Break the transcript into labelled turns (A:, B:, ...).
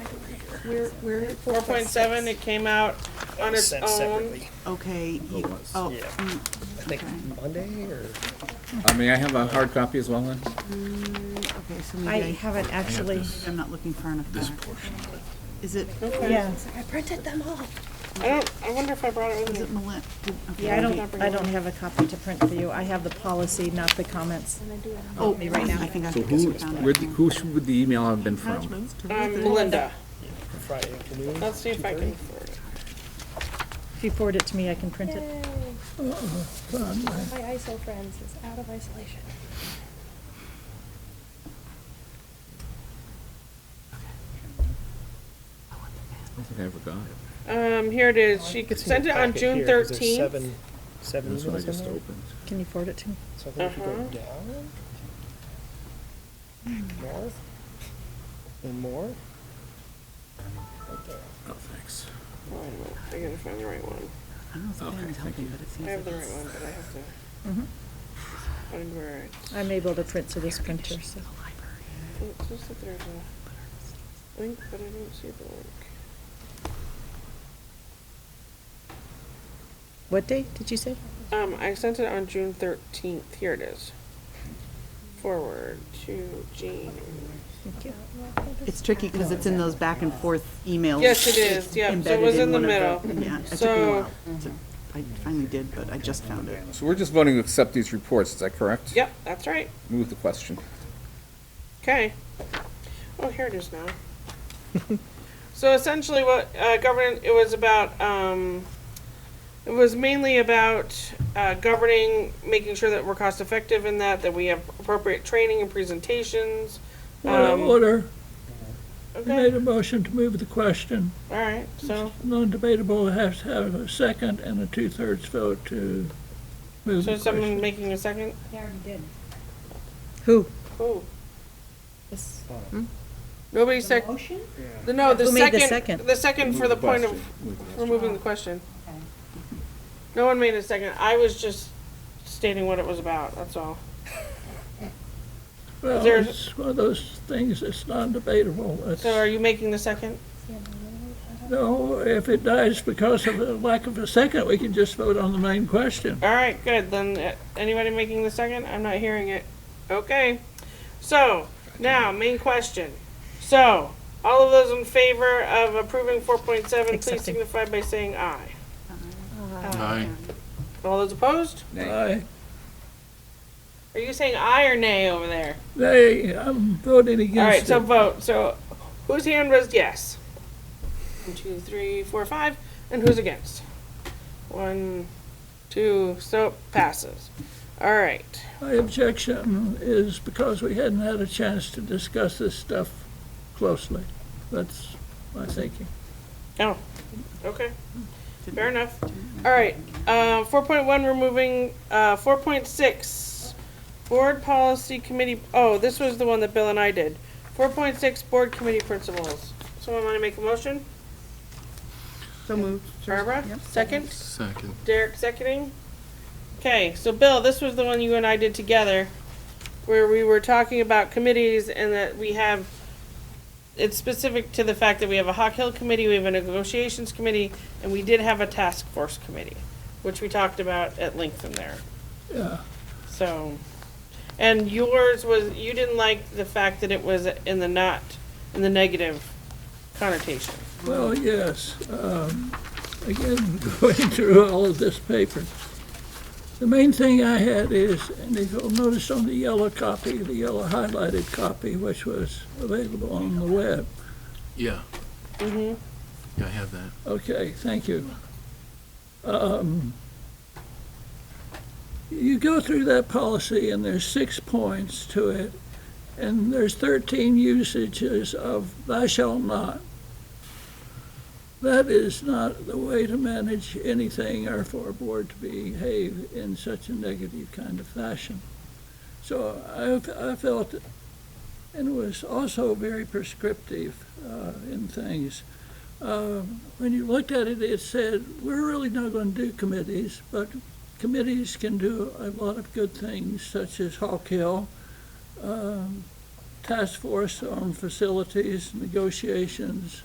A: Where, where?
B: Four point seven, it came out on its
C: Sent
B: own.
C: separately,
A: Okay, you,
D: once.
A: oh,
C: Yeah.
A: mm,
C: I think Monday or
D: I mean, Uh, I have a hard copy as well, Lynn.
A: okay, so
E: I
A: maybe
E: haven't actually,
A: I, I'm not looking far enough back. Is it,
B: Okay.
E: yeah,
F: I printed them all.
B: I don't, I wonder if I brought it with
A: is
B: me.
A: it Melinda?
E: yeah, I don't, I don't have a copy to print for you. I have the policy, not the comments.
A: Oh, me right now. I think I
D: So
A: found
D: who, where,
A: it.
D: the- who should- would the email have been from?
B: Um, Melinda,
C: Friday afternoon.
B: let's see if I can afford it.
E: If you forward it to me, I can print it.
F: My ISO friends is out of isolation.
D: I don't think I ever got it.
B: Um, here it is, she
C: It's in
B: sent
C: your
B: it on
C: packet
B: June
C: here, 'cause there's
B: thirteenth.
C: Seven, seven
D: That's what I
C: emails in
D: just
C: there.
D: opened.
E: Can you forward it to me?
C: So I think if you go
B: Uh-huh.
C: down, north, and more. Right there.
D: Oh, thanks.
B: Oh, wait a minute, I gotta find the right one.
A: I don't know if
D: Okay,
A: Ben's
D: thank
A: helping,
D: you.
A: but it seems
B: I have
A: like
B: the right
A: it's.
B: one, but I have to.
E: Mhm.
B: Find where it's,
E: I'm able to print to this printer, so.
B: it's just that there's a link, but I don't see the link.
E: What date did you say?
B: Um, I sent it on June thirteenth, here it is. Forward to Jean.
E: Thank you.
A: It's tricky because it's in those back and forth emails.
B: Yes, it is, yep, so it
A: embedded
B: was in the
A: one
B: middle.
A: of Yeah, it took me a
B: So-
A: while. to- I finally did, but I just found it.
D: So we're just voting to accept these reports, is that correct?
B: Yep, that's right,
D: Move the question.
B: okay. Oh, here it is now. So essentially what, uh, govern, it was about, um, it was mainly about, uh, governing, making sure that we're cost effective in that, that we have appropriate training and presentations.
G: Point of
B: Um,
G: order, You made
B: Okay,
E: Mm-hmm.
G: a motion to move the question.
B: alright, so,
G: Non-debatable has to have a second and a two-thirds vote to move
B: so
G: the
B: is someone
G: question.
B: making a second?
E: Who?
B: Who? Nobody sec- The, no, the
E: Who made the
B: second,
E: second?
B: the second for the point of,
D: Question. Move the question.
B: for moving the question. No one made a second, I was just stating what it was about, that's all.
G: Well,
B: there's-
G: it's one of those things that's non-debatable. It's-
B: So are you making the second?
G: No, if it dies because of a lack of a second, we can just vote on the main question.
B: Alright, good, then, uh, anybody making the second? I'm not hearing it. Okay, so, now, main question. So, all of those in favor of approving four point seven, please
E: Accepting.
B: signify by saying aye. All those opposed?
D: Nay.
G: Aye.
B: Are you saying aye or nay over there?
G: Nay, I'm voting
B: All right,
G: against
B: so
G: it.
B: vote. So whose hand was yes? One, two, three, four, five. And who's against? One, two, so it passes. All right.
G: My objection is because we hadn't had a chance to discuss this stuff closely. That's my thinking.
B: Oh, okay. Fair enough. All right. Uh, 4.1, removing uh, 4.6, board policy committee. Oh, this was the one that Bill and I did. 4.6, board committee principles. Someone want to make a motion?
A: So moved.
B: Barbara,
A: Yep.
B: second?
H: Second.
B: Derek seconding. Okay, so Bill, this was the one you and I did together, where we were talking about committees and that we have, it's specific to the fact that we have a Hawk Hill committee, we have a negotiations committee, and we did have a task force committee, which we talked about at length in there.
G: Yeah.
B: So, and yours was, you didn't like the fact that it was in the not, in the negative connotation.
G: Well, yes. um, Again, going through all of this paper, the main thing I had is, and if you'll notice on the yellow copy, the yellow highlighted copy, which was available on the web,
H: Yeah. Yeah, I have that.
G: Okay, thank you. Um, You go through that policy and there's six points to it, and there's 13 usages of thou shalt not. That is not the way to manage anything or for a board to behave in such a negative kind of fashion. So I, I felt, and it was also very prescriptive uh, in things um, when you looked at it, it said, we're really not going to do committees, but committees can do a lot of good things, such as Hawk Hill, um, Task Force on Facilities, negotiations,